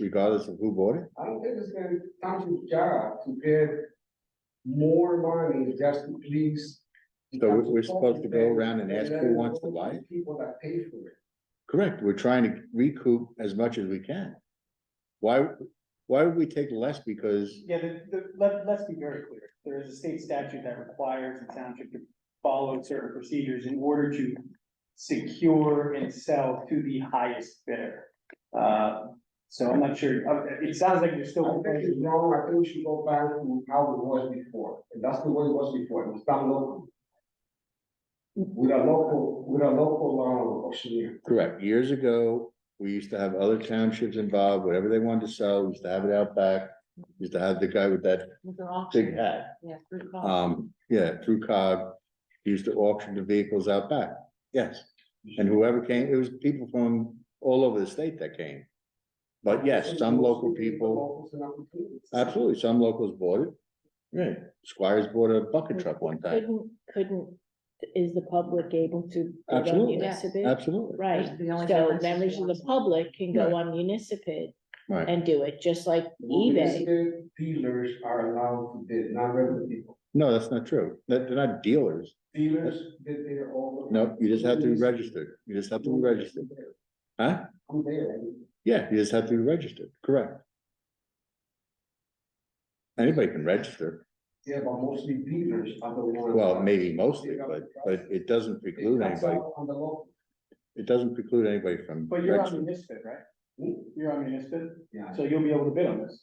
regardless of who bought it? I don't think it's gonna, township's job to give more money just to please. the So we're- we're township's supposed to go office around and and ask let who it wants to go buy it? People that pay for it. Correct, we're trying to recoup as much as we can. Why, why would we take less because, Yeah, the, the, let, let's be very clear. There is a state statute that requires the township to follow certain procedures in order to secure and sell to the highest bidder. Uh, so I'm not sure, Uh, it sounds like you're I still. think it's wrong, I think we should go back to how it was before, and that's the way it was before, it was done local. With a local, with a local, um, auctioneer. correct, years ago, we used to have other townships involved, whatever they wanted to sell, we used to have it out back. Used to have the guy with that With an auction, big hat, yeah, through call. um, yeah, through cog, used to auction the vehicles out back, yes. And whoever came, it was people from all over the state that came. But yes, some local people, Locals and opportunities. absolutely, some locals bought it. Right, Squires bought a bucket truck one time, Couldn't, couldn't, is the public able to? go on Absolutely. Municipal? absolutely, Right, That's the only so difference is members of the once- public can Right. go on municipal right, and do it, just like eBay. Municipal Dealers are allowed to bid, not regular people. no, that's not true, That- they're not dealers, Dealers bid their own. no, you just have to be registered, you just have to be registered, huh? I'm there. Yeah, you just have to be registered, correct. Anybody can register, Yeah, but mostly dealers are the ones. well, maybe mostly, but, but it doesn't preclude That's anybody, out On the local. it doesn't preclude anybody from. But you're on registering. municipal, right? Hmm? You're on municipal, Yeah, so you'll be able to bid on this.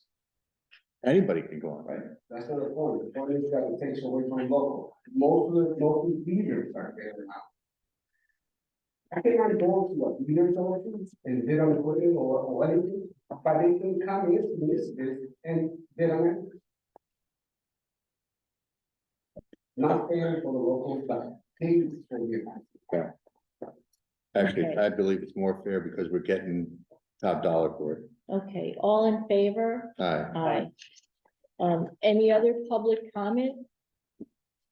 Anybody can go on, right? that's not the point, the point is that it takes away from local, most of the, most of the dealers are there now. I think I go to what, dealers or something, and bid on equipment or, or anything, but they can come in, this, this, and bid on it. Not fair for the local, but things for you. Actually, Okay. I believe it's more fair because we're getting top dollar for it. Okay, all in favor? Aye. Aye. Um, any other public comment?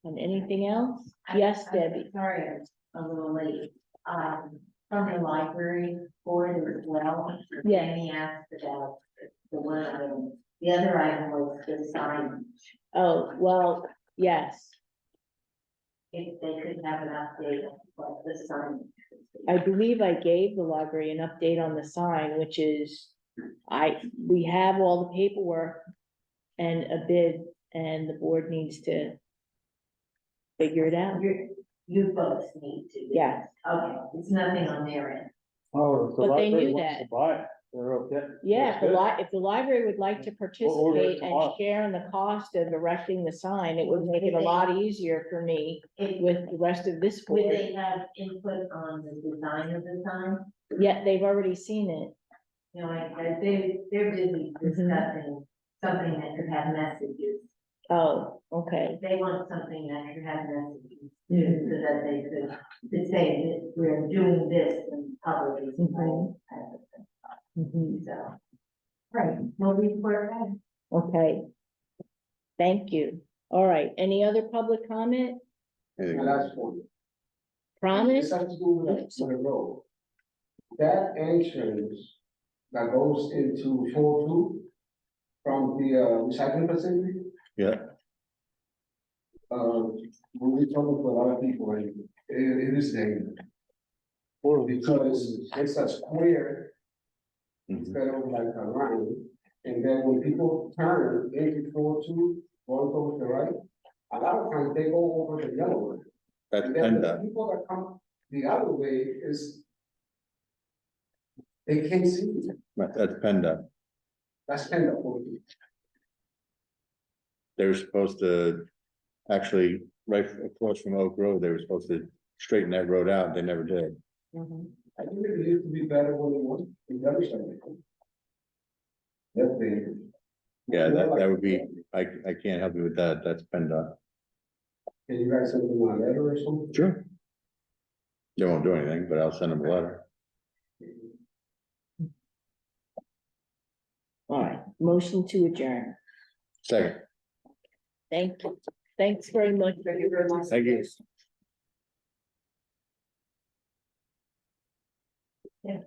On anything else? I- Yes, I'm Debbie, Sorry, I'm a little late. Um, from the library board as well. Yes. And he asked about the one, item. the other item was the sign, oh, well, yes, if they could have an update of what the sign. I believe I gave the library an update on the sign, which is. I, we have all the paperwork and a bid, and the board needs to. Figure it out, You, you folks need to. yeah, Okay, it's nothing on their end. Oh, the But they library knew wants to that. Buy it, they're yeah, if the li- if the library would like to order it participate and tomorrow. share in the cost of erecting the sign, it would make it a lot easier for me. It- With the rest of this Would board, they have input on the design of the sign? yet they've already seen it, You know, like, uh, they, they're busy discussing something that could have messages. oh, okay, They want something that could have messages, too, so that they could, could say that we're doing this and public is Mhm. type of thing, mhm, so. Mm-hmm. Right, we'll report back. okay. Thank you, all right, any other public comment? Anything My else? last point. Promise? This has to do with the- with the road. That entrance that goes into four two from the uh, recycling facility. Yeah. Uh, we'll be talking to a lot of people and it, it is dangerous because it's a square Mhm. instead of like a line. And then when people turn into four two, one goes to right, a lot of times they go over the yellow line. That's And then the PennDOT. people that come the other way is. They can't see, you. Right, That's PennDOT. that's kind of funny. They were supposed to, actually, right across from Oak Road, they were supposed to straighten that road out. They never did. I think it used to be better when it was, the other side. That's the. Yeah, that, that would be, I, I can't help you with that. That's PennDOT. Can you guys send them a letter or something? Sure. They won't do anything, but I'll send them a letter. All right, motion to adjourn. Second, Thank you. Thanks very much. thank you. Yeah.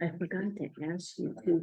I forgot to ask you to